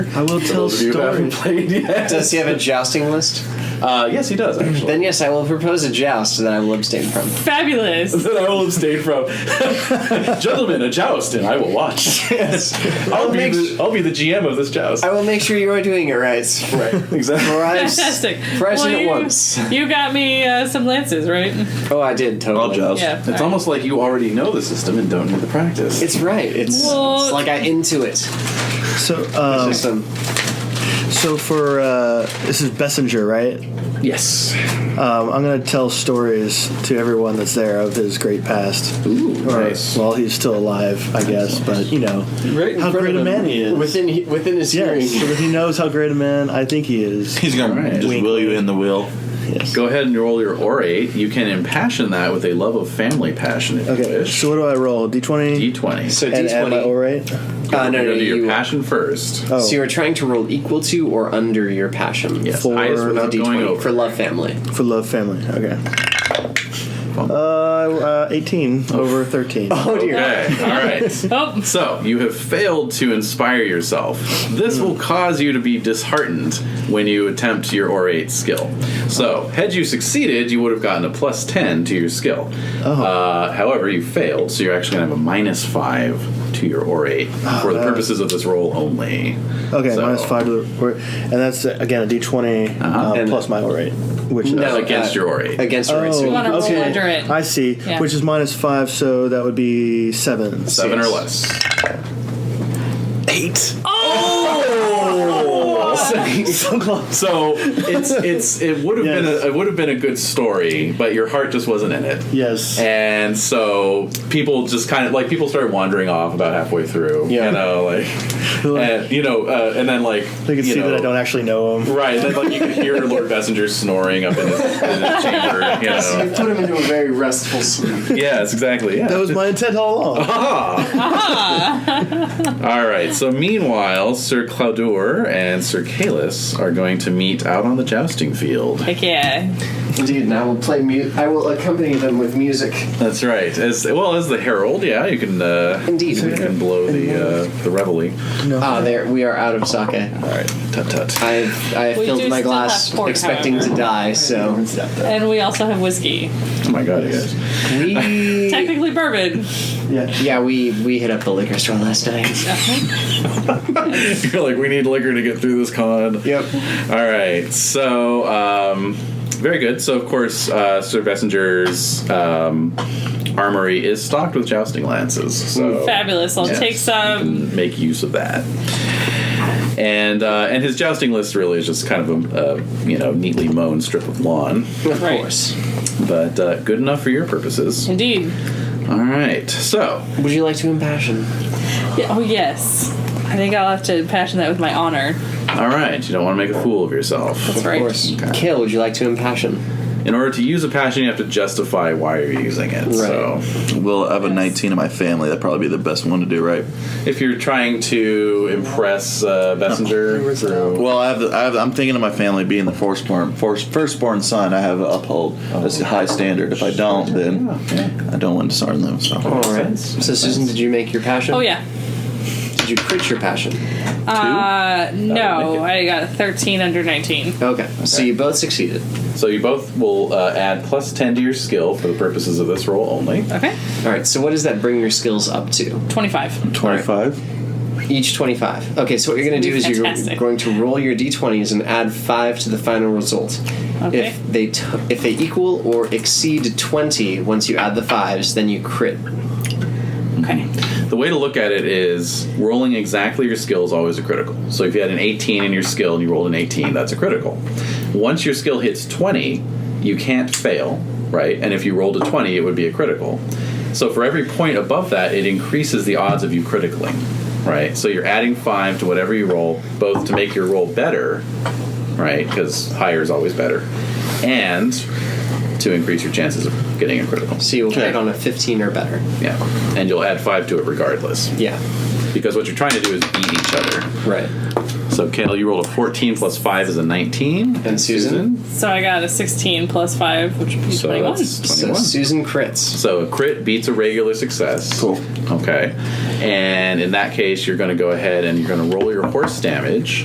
I will For tell those of you who haven't stories. played yet. Does he have a jousting list? Uh, yes, he does, actually. Then yes, I will propose a joust that I will abstain from. Fabulous. that I will abstain from. Gentlemen, a joust, and I will watch. Yes. I'll, be make the, I'll be the GM of this joust. I will make sure you are doing it right. Right, exactly. Or I'm s- Fantastic. Fresh in at you, once. You got me uh, some lances, right? Oh, I did totally. I'll joust. Yeah, it's alright. almost like you already know the system and don't need the practice. It's right. It's, Well- it's like I intuit So, um, system. so for uh, this is Bessinger, right? yes. Um, I'm going to tell stories to everyone that's there of his great past. Ooh, Or, nice. Well, he's still alive, I guess, but you know Right in how front great of a him. man he is. Within within his yes, so hearing. that he knows how great a man I think he is. He's gonna All right. just Wink. wheel you in the wheel. Yes. Go ahead and roll your orate. You can impassion that with a love of family passion if you Okay. wish. So what do I roll? D20 D20. So and add my D20. orate. Uh, no, You're no, gonna do your you- passion first. Oh, So you are trying to roll equal to or under your passion. Yes, for highest With a without going D20 over. for love family. for love, family. Okay. Uh, uh, 18 over 13. Oh dear. okay, all right. Oh, So, you have failed to inspire yourself. This will cause you to be disheartened when you attempt your orate skill. So, had you succeeded, you would have gotten a plus 10 to your skill. Uh, however, you failed, so you're actually going to have a minus 5 to your orate for the that- purposes of this roll only. Okay, So- minus 5 to the or- And that's, uh, again, a d20 Uh-huh. uh, And- plus my orate. Which is, No, against uh, your orate. Against your rate. So Oh, you- wanna roll okay. under it. I see. Yeah. Which is minus 5, so that would be 7. 7 or Yes. less. 8. so close. Oh! So it's it's it would have been Yes. a, it would have been a good story, but your heart just wasn't in it. Yes. And so people just kind of like people started wandering off about halfway through. Yeah. You know, like, and, you know, uh, and then like they can you see know, that I don't actually know him. Right, then like you could hear Lord Bessinger snoring up in his, in his chamber. You You know. put him into a very restful sleep. Yes, exactly. Yeah. That was my intent all along. All right. So meanwhile, Sir Claudur and Sir Calus are going to meet out on the jousting field. heck yeah. Indeed, and I will play. Mu- I will accompany them with music. That's right. As well as the herald, yeah, you can uh, Indeed. you can blow the uh, the reveille. Ah, there we are out of sake. All right, tut tut. I I We do filled my still glass have port, expecting however. to die, so And we also have whiskey. Oh my god, you guys. we Technically bourbon. yeah we we hit up the liquor store last night. You're like, we need liquor to get through this con. Yep. All right. So, um, very good. So, of course, uh, Sir Bessinger's um, armory is stocked with jousting lances. So Fabulous. I'll yes, take some. you can make use of that. And uh, and his jousting list really is just kind of a, a you know neatly mown strip of lawn, Of Right. course. but uh, good enough for your purposes. Indeed. All right. So Would you like to impassion? Yeah, oh, yes. I think I'll have to passion that with my honor. all right, you don't want to make a fool of yourself. That's right. Of course. Kill. Would you like to impassion? In order to use a passion, you have to justify why you're using it. So Well, I have a 19 in my family. That'd probably be the best one to do, right? if you're trying to impress uh, Messenger through. Well, I have, the, I have. I'm thinking of my family being the firstborn, first, firstborn son. I have to uphold. That's a high standard. If I don't, then I don't want to disarm them. So. All right. So Susan, did you make your passion? Oh, yeah. Did you crit your passion? Uh, no, make I got a 13 under 19. Okay. So you both succeeded. So you both will uh, add plus 10 to your skill for the purposes of this roll only. Okay. All right. So what does that bring your skills up to? 25. 25. Each 25. Okay, so what you're going to do is you're Fantastic. going to roll your d20s and add 5 to the final result. Okay. If they t- if they equal or exceed 20 once you add the 5s, then you crit. Okay. The way to look at it is rolling exactly your skill is always a critical. So if you had an 18 in your skill and you rolled an 18, that's a critical. Once your skill hits 20, you can't fail, right? And if you rolled a 20, it would be a critical. So for every point above that, it increases the odds of you critically, right? So you're adding 5 to whatever you roll, both to make your roll better, right? Because higher is always better, and to increase your chances of getting a critical. So you'll Okay. crit on a 15 or better. Yeah. And you'll add 5 to it regardless Yeah. because what you're trying to do is beat each other. Right. So, Kale, you rolled a 14 plus 5 is a 19. And Susan? So I got a 16 plus 5, which would be So 21. that's So 21. So, Susan crits. a crit beats a regular success. Cool. Okay. And in that case, you're going to go ahead and you're going to roll your horse damage.